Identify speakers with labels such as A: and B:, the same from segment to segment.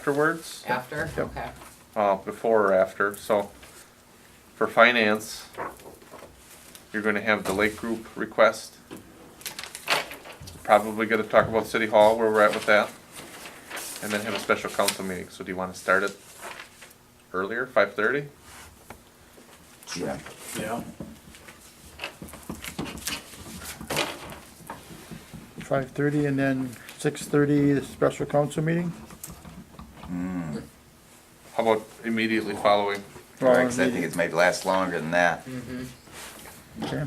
A: afterwards,
B: After,
A: Yep.
B: okay.
A: uh, before or after, so for finance, you're gonna have the Lake Group request. Probably gonna talk about City Hall, where we're at with that, and then have a special council meeting, so do you wanna start it earlier, five thirty?
C: Yeah.
D: Yeah.
E: Five thirty and then six thirty, the special council meeting?
A: How about immediately following?
C: Right, 'cause I think it's maybe last longer than that.
B: Mm-hmm.
E: Okay.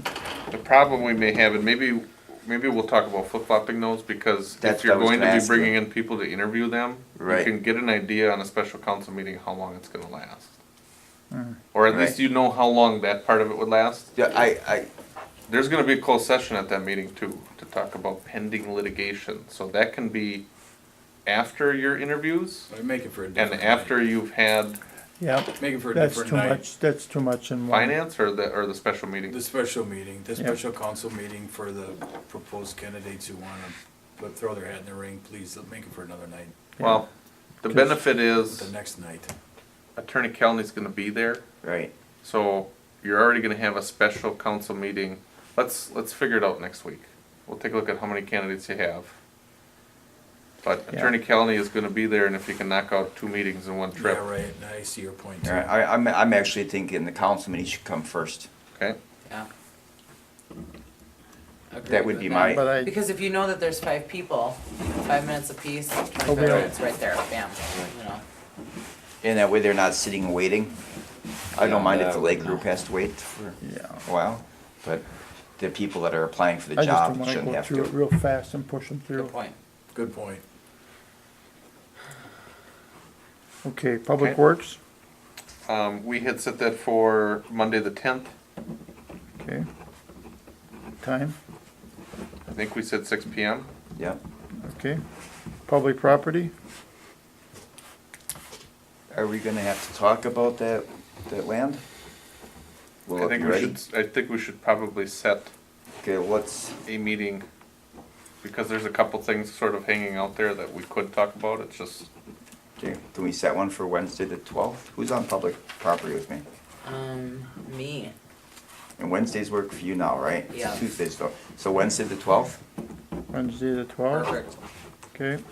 A: The problem we may have, and maybe, maybe we'll talk about flip-flopping those, because if
C: That's
A: you're
C: what I was
A: going
C: gonna
A: to be
C: ask
A: bringing
C: you.
A: in people to interview them, you
C: Right.
A: can get an idea on a special council meeting how long it's gonna last. Or at least
C: Hmm. Right.
A: you know how long that part of it would last.
C: Yeah, I,
A: There's gonna be a closed session at that meeting too, to talk about pending litigation, so that can be after your interviews
D: I make it for a
A: and
D: different.
A: after you've had
E: Yeah,
D: night. Make it for a
E: that's
D: different
E: too
D: night.
E: much, that's too much in one.
A: finance or the, or the special
D: The
A: meeting.
D: special meeting, the
E: Yeah.
D: special council meeting for the proposed candidates who wanna put- throw their hat in the ring, please, let- make it for another night,
A: Well, the benefit is
D: the next night.
A: Attorney Kelly's gonna be there.
C: I, right,
A: So you're already gonna have a special council meeting. Let's, let's figure it out next week. We'll take a look at how many candidates you have. But
E: Yeah.
A: Attorney Kelly is gonna be there and if you can knock out two meetings in one
D: Yeah,
A: trip,
D: right, and I see your point
C: All
D: too.
C: right, I, I'm, I'm actually thinking the council meeting should come first.
A: okay?
B: Yeah. Agree
C: That would
B: with
C: be
B: that.
C: my,
E: But I,
B: Because if you know that there's five people, five minutes apiece, twenty-five
E: Okay.
B: minutes right there, bam, you know.
C: and that way they're not sitting and waiting. I don't mind if the lake group has to wait for
E: yeah,
C: a while, but the people that are applying for the
E: I just don't
C: job
E: wanna
C: shouldn't
E: go
C: have
E: through it
C: to.
E: real fast and push them
B: Good
E: through.
B: point.
D: Good point.
E: Okay, Public
A: Okay.
E: Works,
A: Um, we had set that for Monday the tenth.
E: okay. Time,
A: I think we said six P M.
C: Yep.
E: okay. Public Property,
C: Are we gonna have to talk about that, that land? Will
A: I
C: it be
A: think we
C: ready?
A: should, I think we should probably set
C: Okay, what's,
A: a meeting because there's a couple things sort of hanging out there that we could talk about. It's just,
C: okay, can we set one for Wednesday the twelfth? Who's on public property with me?
B: Um, me,
C: And Wednesdays work for you now, right? It's
B: Yeah.
C: Tuesdays though. So Wednesday the twelfth?
E: Wednesday the twelfth,
B: perfect.
E: okay.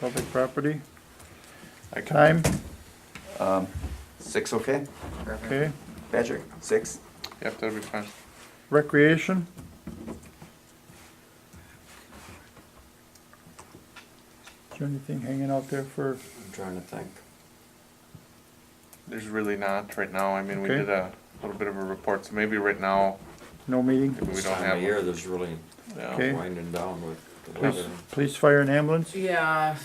E: Public Property,
A: I can,
E: time,
C: Um, six, okay?
B: Perfect.
E: okay.
C: Patrick, six?
A: yep, that'd be fine.
E: Recreation, is there anything hanging out there for?
D: I'm trying to think.
A: There's really not right now. I mean, we
E: Okay.
A: did a little bit of a report, so maybe right now,
E: No meeting?
A: maybe we
F: This
A: don't
F: time
A: have.
F: of year, there's really
A: yeah.
E: Okay.
F: winding down with the
E: Police,
F: weather.
E: police, fire and ambulance?
B: Yeah,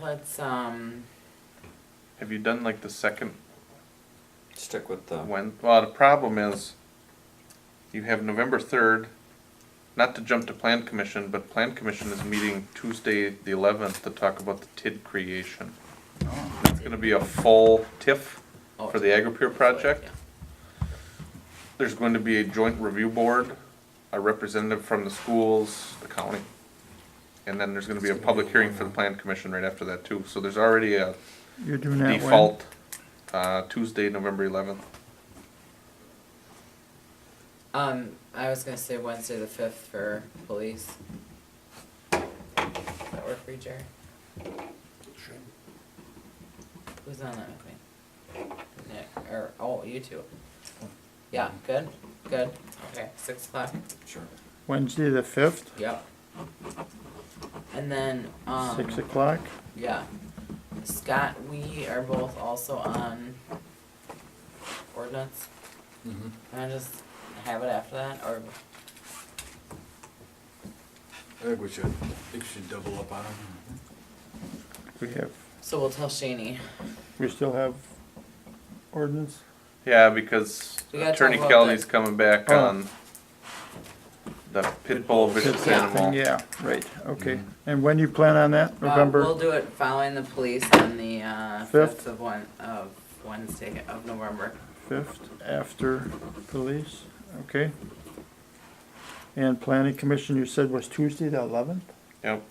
B: let's, um,
A: Have you done like the second
F: Stick with the,
A: when? Well, the problem is, you have November third. Not to jump to plan commission, but plan commission is meeting Tuesday the eleventh to talk about the TID creation.
F: Oh.
A: It's gonna be a full TIF
B: Oh,
A: for the AgriPure project.
B: yeah.
A: There's going to be a joint review board, a representative from the schools, the county. And then there's gonna be a public hearing for the plan commission right after that too, so there's already a
E: You're doing that when?
A: default, uh, Tuesday, November eleventh.
B: um, I was gonna say Wednesday the fifth for police. Does that work for you, Jerry? Who's on that with me? Nick, or, oh, you two. Yeah, good, good, okay, six o'clock,
D: Sure.
E: Wednesday the fifth,
B: yep. And then,
E: six
B: um,
E: o'clock,
B: yeah, Scott, we are both also on ordinance,
D: Mhm.
B: can I just have it after that, or,
D: I think we should, I think we should double up on them.
E: we have,
B: so we'll tell Shaney.
E: we still have ordinance?
A: Yeah, because
B: We gotta talk
A: Attorney
B: about
A: Kelly's
B: that.
A: coming back
E: Oh.
A: on the pit bull vicious
B: Yeah.
A: animal.
E: Yeah, right, okay, and when you plan on that,
B: Uh, We'll
E: November,
B: do it following the police on the, uh,
E: Fifth?
B: fifth of one, of Wednesday of November.
E: fifth, after police, okay? And planning commission, you said was Tuesday the eleventh?
A: Yep,